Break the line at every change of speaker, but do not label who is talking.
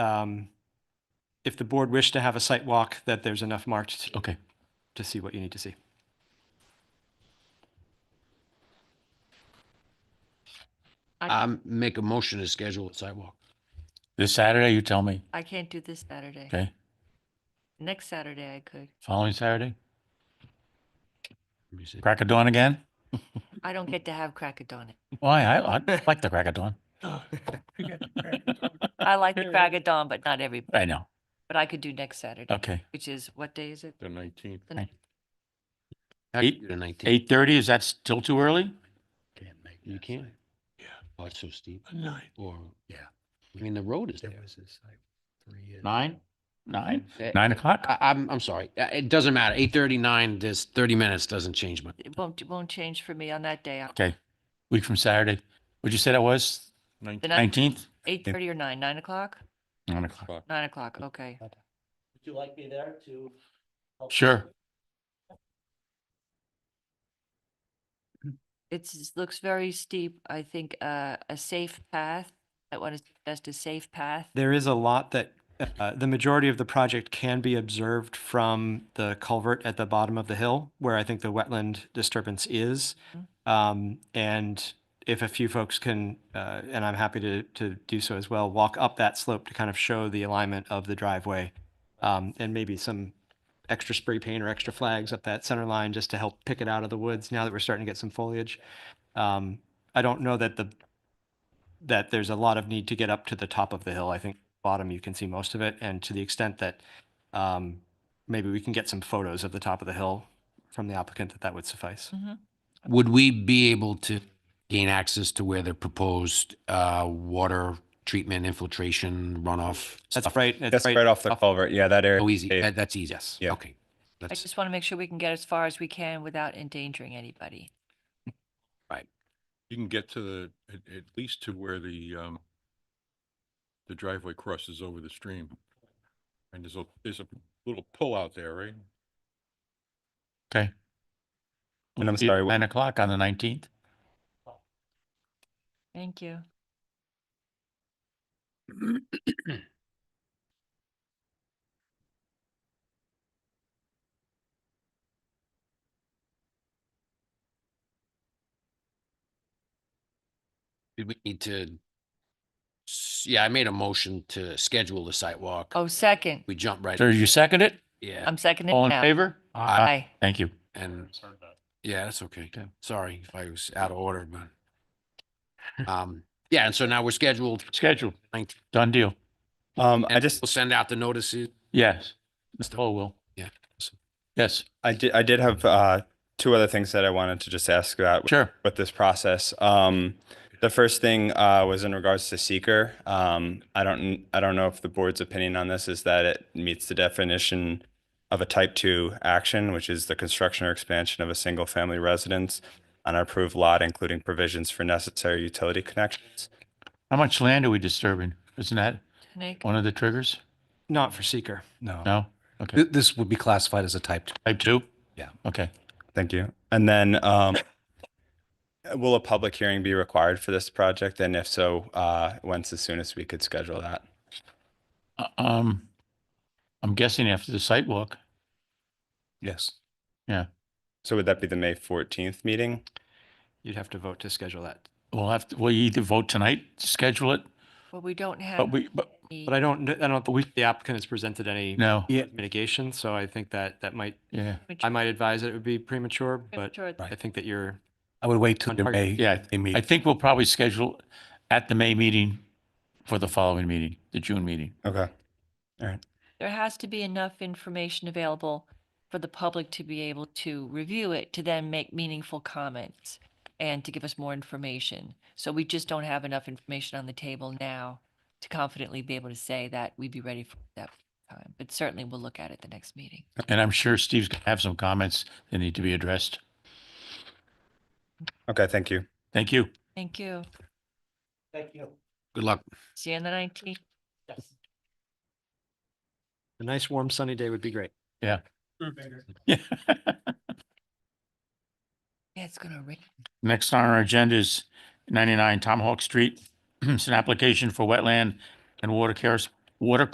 um, if the board wished to have a site walk, that there's enough marked
Okay.
to see what you need to see.
i
Um,
make a motion to schedule a sidewalk. This Saturday, you tell me,
I can't do this Saturday.
okay?
Next Saturday I could.
Following Saturday? Crack of dawn again?
I
Mm.
don't get to have crack a donut.
Why? I, I like the crack of dawn.
I like the crack of dawn, but not every,
I know.
but I could do next Saturday,
Okay.
which is, what day is it?
The nineteenth.
The
Right.
ninth.
Eight- Eight thirty, is that still too early?
You can't? Yeah.
Oh, it's so steep.
Nine.
Or,
Yeah.
I mean, the road is
There
there.
was this like three. years-
Nine? Nine?
Eh,
Nine o'clock?
I, I'm, I'm sorry. Uh, It doesn't matter. Eight thirty-nine, this thirty minutes doesn't change much.
It won't, it won't change for me on that day.
Okay. Week from Saturday. What'd you say that was?
The ninth,
Nineteenth?
eight thirty or nine, nine o'clock?
Nine o'clock.
Nine o'clock, okay.
Would you like me there to? help
Sure.
It's, it looks very steep. I think, uh, a safe path. I want to suggest a safe path.
There is a lot that, uh, the majority of the project can be observed from the culvert at the bottom of the hill, where I think the wetland disturbance is. Um, and if a few folks can, uh, and I'm happy to, to do so as well, walk up that slope to kind of show the alignment of the driveway. Um, and maybe some extra spray paint or extra flags up that center line just to help pick it out of the woods now that we're starting to get some foliage. Um, I don't know that the, that there's a lot of need to get up to the top of the hill. I think bottom, you can see most of it. And to the extent that um, maybe we can get some photos of the top of the hill from the applicant, that that would suffice.
Would we be able to gain access to where the proposed, uh, water treatment infiltration runoff?
That's
stuff-
right.
That's right off the culvert. Yeah, that area.
Oh, easy.
Hey,
That, that's easy.
Yes.
Yeah.
Okay.
I
That's,
just want to make sure we can get as far as we can without endangering anybody.
You can get to the, at, at least to where the, um, the driveway crosses over the stream. And there's a, there's a little pull out there, right?
Okay.
And I'm sorry, what-
Nine o'clock on the nineteenth?
Thank you.
did we need to? s- Yeah, I made a motion to schedule the sidewalk.
Oh, second.
We jump right,
So you second it?
yeah.
I'm seconding
All in
now.
favor?
Aye.
Thank you.
And, yeah, that's okay. Sorry if I was out of order, but. Um, yeah, and so now we're scheduled.
Scheduled.
19th,
Done deal.
Um, I
and
just,
We'll send out the notices.
Yes. Mr. Hall will.
Yeah.
Yes,
I did, I did have, uh, two other things that I wanted to just ask about with-
sure.
with this process. Um, the first thing, uh, was in regards to seeker. Um, I don't, I don't know if the board's opinion on this is that it meets the definition of a type two action, which is the construction or expansion of a single family residence on an approved lot, including provisions for necessary utility connections.
How much land are we disturbing? Isn't that
Nick?
one of the triggers?
Not for seeker.
No? Okay.
This would be classified as a type two.
Type two?
Yeah.
Okay.
Thank you. And then, um, will a public hearing be required for this project? And if so, uh, when's the soonest we could schedule that?
Uh, Um, I'm guessing after the site walk.
Yes.
So would that be the May 14th meeting?
You'd have to vote to schedule that.
we'll have, to. we either vote tonight, schedule it,
Well, we don't have.
but we, but
any-
But I don't, kn- I don't think the applicant has presented any
no,
mitigation, so I think that that might,
yeah.
which-
I might advise it would be premature, but
Premature.
I think that you're,
I would wait till
On
the
target.
May.
Yeah,
May meeting.
I think we'll probably schedule at the May meeting for the following meeting, the June meeting.
Okay.
There has to be enough information available for the public to be able to review it, to then make meaningful comments and to give us more information. So we just don't have enough information on the table now to confidently be able to say that we'd be ready for that time. But certainly we'll look at it the next meeting.
And I'm sure Steve's gonna have some comments that need to be addressed.
Okay, thank you.
Thank you.
Thank you.
Thank you.
Good luck.
See you on the nineteenth.
Yes.
a nice warm sunny day would be great.
Yeah.
Yeah, it's gonna rain.
Next on our agenda is 99 Tomahawk Street. It's an application for wetland and water care water